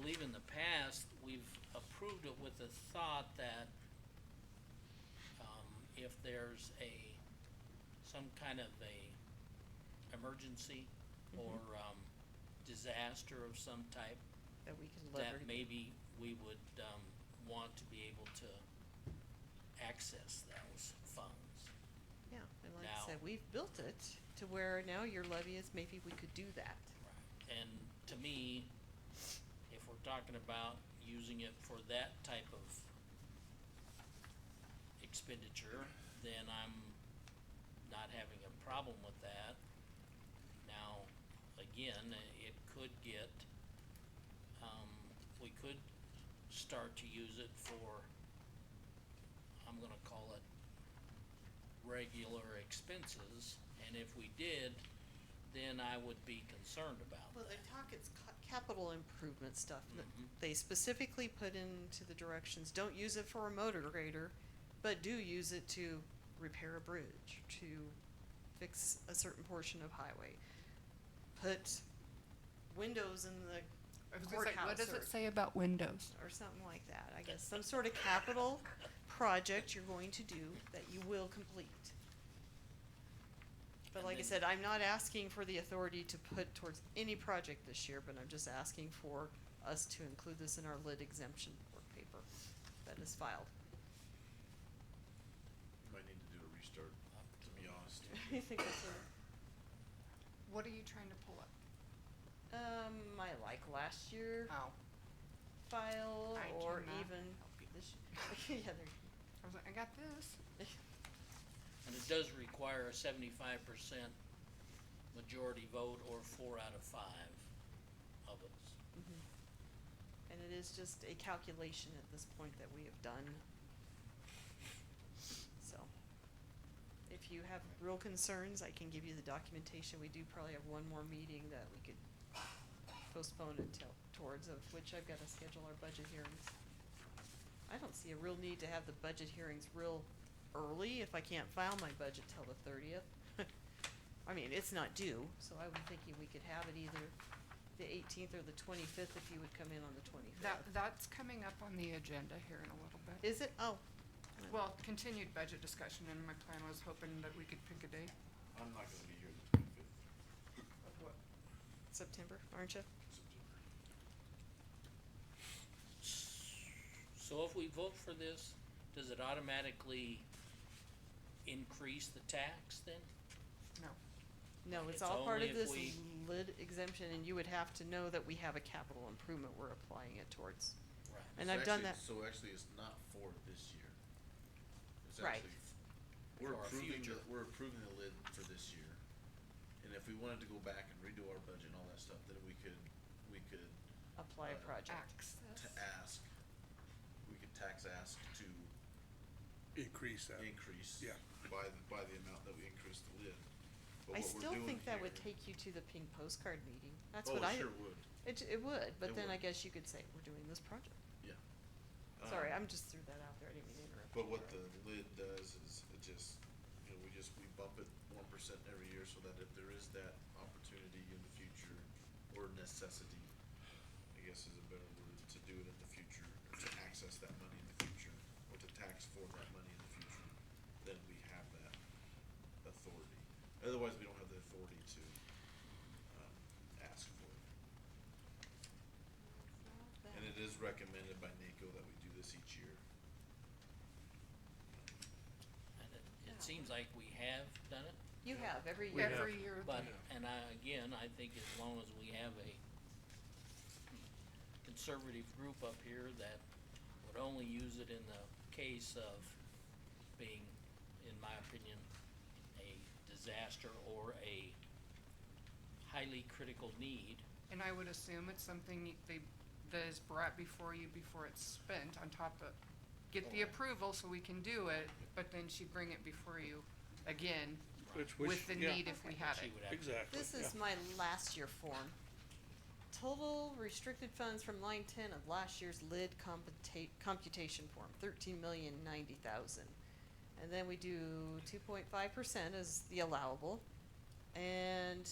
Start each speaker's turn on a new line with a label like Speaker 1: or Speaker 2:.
Speaker 1: believe in the past, we've approved it with the thought that um, if there's a, some kind of a emergency or, um, disaster of some type,
Speaker 2: that we can
Speaker 1: that
Speaker 2: leverage.
Speaker 1: maybe we would, um, want to be able to access those funds.
Speaker 2: Yeah, and like
Speaker 1: now.
Speaker 2: I said, we've built it to where now your levy is, maybe we could do that.
Speaker 1: And to me, if we're talking about using it for that type of expenditure, then I'm not having a problem with that. Now, again, i- it could get, um, we could start to use it for, I'm gonna call it regular expenses, and if we did, then I would be concerned about
Speaker 2: Well, they talk, it's ca- capital improvement stuff. Th-
Speaker 1: Mhm.
Speaker 2: They specifically put into the directions, don't use it for a motor grader, but do use it to repair a bridge, to fix a certain portion of highway. Put windows in
Speaker 3: I
Speaker 2: the
Speaker 3: was gonna say, what
Speaker 2: courthouse
Speaker 3: does
Speaker 2: or,
Speaker 3: it say about windows?
Speaker 2: or something like that, I guess, some sort of capital project you're going to do that you will complete. But
Speaker 1: And
Speaker 2: like I
Speaker 1: then-
Speaker 2: said, I'm not asking for the authority to put towards any project this year, but I'm just asking for us to include this in our lid exemption work paper that is filed.
Speaker 4: Might need to do a restart, to be honest.
Speaker 2: I think that's a-
Speaker 3: What are you trying to pull up?
Speaker 2: um, I like last year
Speaker 3: Oh.
Speaker 2: file
Speaker 3: I
Speaker 2: or
Speaker 3: cannot
Speaker 2: even
Speaker 3: help you.
Speaker 2: this, yeah, there,
Speaker 3: I was like, I got this.
Speaker 1: And it does require a seventy-five percent majority vote or four out of five of us.
Speaker 2: Mm-hmm. and it is just a calculation at this point that we have done. So, if you have real concerns, I can give you the documentation, we do probably have one more meeting that we could postpone until, towards of which I've gotta schedule our budget hearings. I don't see a real need to have the budget hearings real early if I can't file my budget till the thirtieth. I mean, it's not due, so I was thinking we could have it either the eighteenth or the twenty-fifth if you would come in on the
Speaker 3: That,
Speaker 2: twenty-fifth.
Speaker 3: that's coming up on the agenda here in a little bit.
Speaker 2: Is it? Oh,
Speaker 3: Well, continued budget discussion, and my plan was hoping that we could pick a date.
Speaker 4: I'm not gonna be here the twenty-fifth
Speaker 3: of what-
Speaker 2: September, aren't you?
Speaker 4: September.
Speaker 1: So if we vote for this, does it automatically increase the tax then?
Speaker 3: No.
Speaker 2: No,
Speaker 1: It's
Speaker 2: it's all part
Speaker 1: only
Speaker 2: of
Speaker 1: if
Speaker 2: this
Speaker 1: we-
Speaker 2: lid exemption and you would have to know that we have a capital improvement we're applying it towards.
Speaker 1: Right.
Speaker 2: And
Speaker 4: It's
Speaker 2: I've done that,
Speaker 4: actually- So actually, it's not for this year. It's
Speaker 2: Right.
Speaker 4: actually f- We're
Speaker 1: For our
Speaker 4: approving, the-
Speaker 1: future.
Speaker 4: we're approving the lid for this year, and if we wanted to go back and redo our budget and all that stuff, then we could, we could,
Speaker 2: apply a
Speaker 4: uh,
Speaker 2: project.
Speaker 4: to
Speaker 3: Access.
Speaker 4: ask, we could tax ask to
Speaker 5: increase that.
Speaker 4: increase.
Speaker 5: Yeah.
Speaker 4: By, the- by the amount that we increase the lid. But
Speaker 2: I
Speaker 4: what we're
Speaker 2: still
Speaker 4: doing
Speaker 2: think that would
Speaker 4: here-
Speaker 2: take you to the pink postcard meeting. That's
Speaker 4: Oh,
Speaker 2: what
Speaker 4: it
Speaker 2: I,
Speaker 4: sure would,
Speaker 2: it, it would,
Speaker 4: It
Speaker 2: but then I
Speaker 4: would.
Speaker 2: guess you could say, we're doing this project.
Speaker 4: yeah.
Speaker 2: Sorry,
Speaker 4: Um,
Speaker 2: I'm just threw that out there. I didn't mean to interrupt.
Speaker 4: But
Speaker 2: you,
Speaker 4: what
Speaker 2: Laura.
Speaker 4: the lid does is it just, you know, we just, we bump it one percent every year so that if there is that opportunity in the future or necessity, I guess is a better word, to do it in the future, or to access that money in the future, or to tax for that money in the future, then we have that authority. Otherwise, we don't have the authority to, um, ask for it. And it is recommended by NACO that we do this each year.
Speaker 1: And it,
Speaker 2: Yeah.
Speaker 1: it seems like we have done it,
Speaker 2: You have every
Speaker 5: We
Speaker 2: year.
Speaker 5: have-
Speaker 3: Every year.
Speaker 1: but, and I, again, I think as long as we have a conservative group up here that would only use it in the case of being, in my opinion, a disaster or a highly critical need.
Speaker 3: And I would assume it's something you- they, that is brought before you before it's spent on top of, get the
Speaker 1: Right.
Speaker 3: approval so we can do it, but then she bring it before you again
Speaker 5: Which, which,
Speaker 3: with the
Speaker 5: yeah,
Speaker 3: need if we had
Speaker 1: She
Speaker 3: it.
Speaker 1: would have to
Speaker 5: Exactly,
Speaker 2: This
Speaker 5: yeah.
Speaker 2: is my last year form. Total restricted funds from line ten of last year's lid computa- computation form, thirteen million ninety thousand. And then we do two point five percent as the allowable. And